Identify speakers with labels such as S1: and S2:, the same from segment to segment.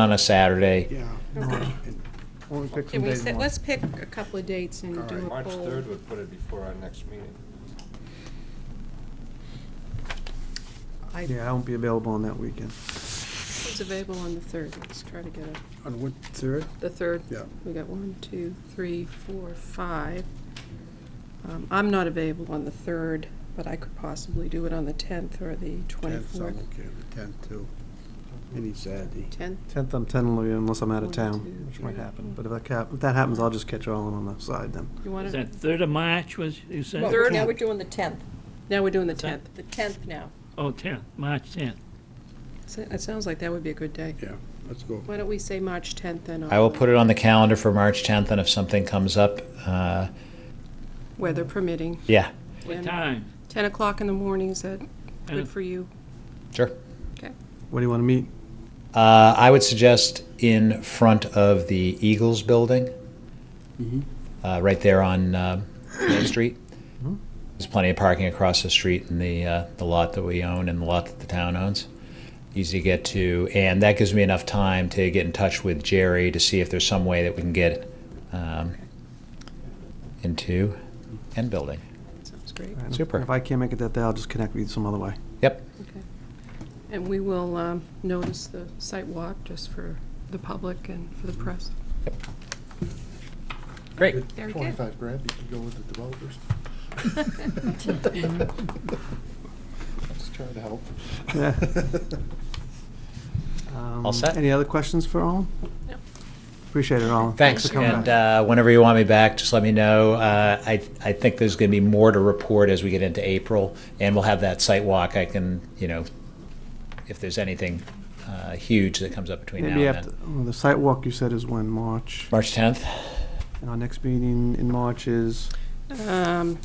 S1: on a Saturday.
S2: Yeah.
S3: Okay.
S2: Why don't we pick
S3: Can
S2: some
S3: we
S2: days
S3: set,
S2: and
S3: let's pick a couple of dates and do a
S4: March
S3: poll.
S4: 3rd would put it before our next meeting.
S3: I
S2: Yeah, I won't be available on that weekend.
S3: was available on the third, let's try to get it.
S2: On what, third?
S3: The third?
S2: Yeah.
S3: We got one, two, three, four, five. Um, I'm not available on the third, but I could possibly do it on the tenth or the twenty-fourth.
S2: the tenth too. Any Saturday.
S3: Tenth,
S2: Tenth, I'm tentatively, unless I'm out of
S3: One,
S2: town,
S3: two,
S2: which might
S3: three,
S2: happen. But if that cap, if that happens, I'll just catch Roland on the side then.
S3: you want
S5: Is
S3: to,
S5: that third of March was, you said?
S2: No.
S6: Third, now
S2: 10th.
S6: we're doing the 10th,
S3: now we're doing the
S5: that?
S3: tenth.
S6: the 10th now.
S5: Oh, tenth, March tenth.
S3: So It sounds like that would be a good day.
S2: Yeah, let's go.
S3: Why don't we say March tenth then?
S1: I will put it on the calendar for March 10th, and if something comes up, uh,
S3: Weather permitting.
S1: yeah,
S5: What
S3: And
S5: time?
S3: Ten o'clock in the morning, is that
S5: Uh,
S3: good for you?
S1: sure.
S2: Where do you want to meet?
S1: Uh, I would suggest in front of the Eagles building, uh, right there on uh, Main Street.
S2: Mhm.
S1: There's plenty of parking across the street in the uh, the lot that we own and the lot that the town owns. Easy to get to, and that gives me enough time to get in touch with Jerry to see if there's some way that we can get um, into end building.
S3: Sounds great.
S2: All right, if-
S1: Super.
S2: If I can't make it that day, I'll just connect with you some other way.
S1: Yep.
S3: Okay. And we will um, notice the site walk just for the public and for the press.
S1: Great.
S3: Very good.
S7: Twenty-five grand, you can go with the developers. Just trying to help.
S2: Yeah. Um,
S1: set.
S2: Any other questions for Roland?
S3: No.
S2: Appreciate it, Roland.
S1: Thanks,
S2: for coming
S1: and
S2: back.
S1: uh, whenever you want me back, just let me know. Uh, I, I think there's going to be more to report as we get into April, and we'll have that site walk. I can, you know, if there's anything uh, huge that comes up between
S2: Maybe
S1: now and
S2: after,
S1: then.
S2: oh, the site walk you said is when, March?
S1: March 10th?
S2: And our next meeting in March is,
S3: Um,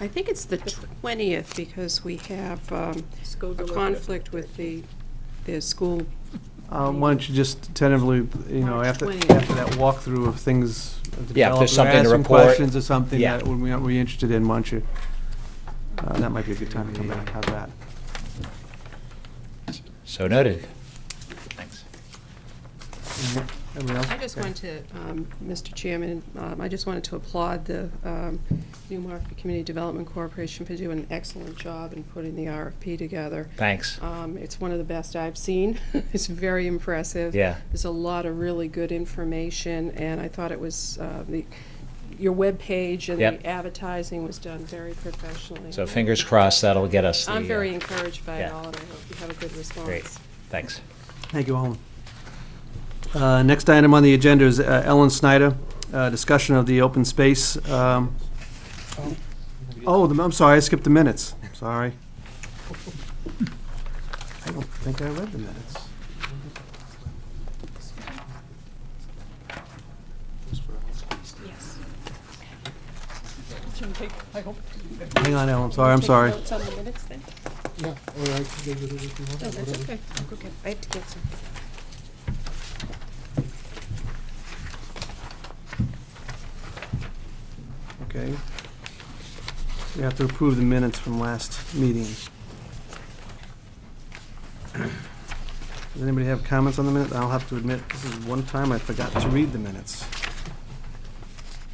S3: I think it's the 20th because we have um,
S6: School
S3: a
S6: deliberative.
S3: conflict with the, the school.
S2: uh, why don't you just tentatively, you know,
S3: March
S2: after,
S3: 20th.
S2: after that walkthrough of things. of the
S1: Yeah, if there's
S2: developer,
S1: something to
S2: ask some
S1: report.
S2: questions or something
S1: Yeah.
S2: that we- we're interested in, why don't you? uh, That might be a good time to come back, how's that?
S1: So noted. Thanks.
S2: Everybody else?
S3: I just want to, um, Mr. Chairman, um, I just wanted to applaud the um, New Market Community Development Corporation for doing an excellent job in putting the RFP together.
S1: Thanks.
S3: Um, It's one of the best I've seen. It's very impressive.
S1: Yeah.
S3: There's a lot of really good information, and I thought it was, uh, the, your webpage and
S1: Yep.
S3: the advertising was done very professionally.
S1: So fingers crossed that'll get us the.
S3: I'm very
S1: uh,
S3: encouraged by it
S1: yeah.
S3: all, and I hope you have a good response.
S1: Great. Thanks.
S2: Thank you, Alan. Uh, Next item on the agenda is uh, Ellen Snyder, uh, discussion of the open space. um, Oh, the- I'm sorry, I skipped the minutes, sorry. I don't think I read the minutes. Hang on, Ellen, sorry, I'm sorry.
S3: Notes on the minutes then?
S7: Yeah, or I can go with it if you want.
S3: No,
S7: whatever.
S3: that's okay. Okay, I have to get some.
S2: Okay. We have to approve the minutes from last meeting. Does anybody have comments on the minutes? I'll have to admit, this is one time I forgot to read the minutes.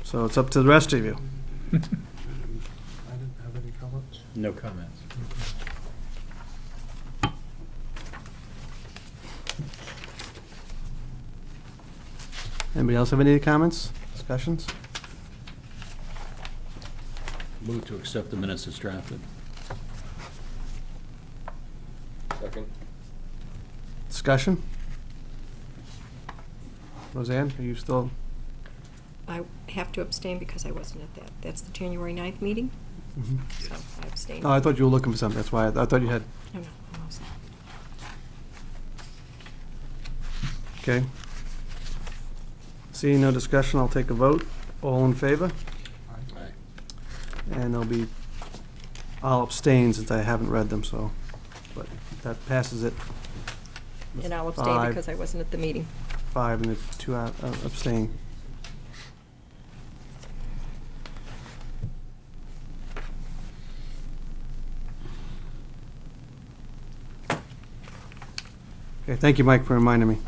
S2: So it's up to the rest of you.
S7: I didn't have any comments.
S8: No comments.
S2: Anybody else have any comments, discussions?
S8: Move to accept the minutes as drafted.
S4: Second?
S2: Discussion? Roseanne, are you still,
S6: I have to abstain because I wasn't at that. That's the January 9th meeting, so I abstained.
S2: oh, I thought you were looking for something, that's why, I I thought you had,
S6: No, no, I'm all set.
S2: okay. Seeing no discussion, I'll take a vote. All in favor?
S8: Aye.
S2: And there'll be, I'll abstain since I haven't read them, so, but that passes it,
S6: And I'll abstain
S2: Five.
S6: because I wasn't at the meeting.
S2: five and a two out- uh, abstain. Okay, thank you, Mike, for reminding me.